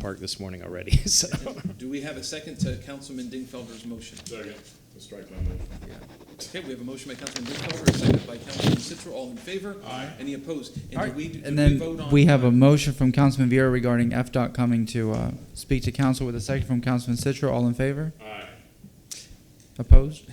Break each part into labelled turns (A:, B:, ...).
A: park this morning already, so.
B: Do we have a second to Councilman Dingfelder's motion?
C: Second, to strike my motion.
B: Okay, we have a motion by Councilman Dingfelder, a second by Councilman Citro, all in favor? Aye. Any opposed? And do we, do
D: And
B: we vote
D: then
B: on?
D: we have a motion from Councilman Viera regarding FDOT coming to uh, speak to council with a second from Councilman Citro. All in favor?
C: Aye.
D: Opposed?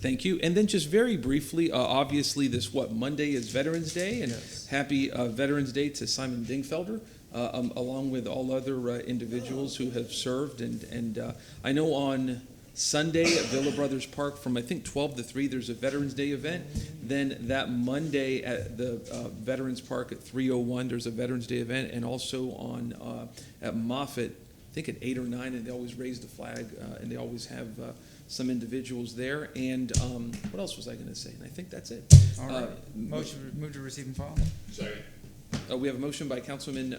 B: Thank you. And then just very briefly, uh, obviously, this, what, Monday is Veterans Day? And happy uh, Veterans Day to Simon Dingfelder, uh, um, along with all other uh, individuals who have served. And, and uh, I know on Sunday at Villa Brothers Park from, I think, 12 to 3, there's a Veterans Day event. Then that Monday at the uh, Veterans Park at 301, there's a Veterans Day event. And also on, uh, at Moffett, I think at eight or nine, and they always raise the flag, uh, and they always have uh, some individuals there. And um, what else was I going to say? And I think that's it.
D: All
B: Uh,
D: right. Motion, move to receive and file.
C: Second.
B: Uh, we have a motion by Councilman uh,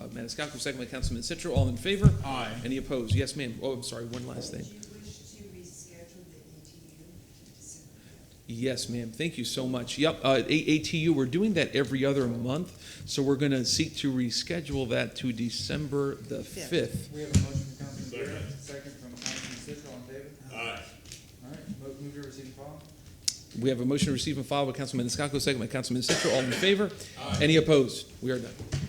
B: uh, Maniscalco, second by Councilman Citro. All in favor?
C: Aye.
B: Any opposed? Yes, ma'am. Oh, I'm sorry. One last thing.
E: Do you wish to reschedule the ATU to December?
B: Yes, ma'am. Thank you so much. Yep, uh, A- ATU, we're doing that every other month, so we're going to seek to reschedule that to December the
E: Fifth.
B: 5th.
D: We have a motion from Councilman
C: Second.
D: Viera, second from Councilman Citro. All in favor?
C: Aye.
D: All right. Move to receive and file.
B: We have a motion to receive and file by Councilman Maniscalco, second by Councilman Citro. All in favor? Any opposed? We are done.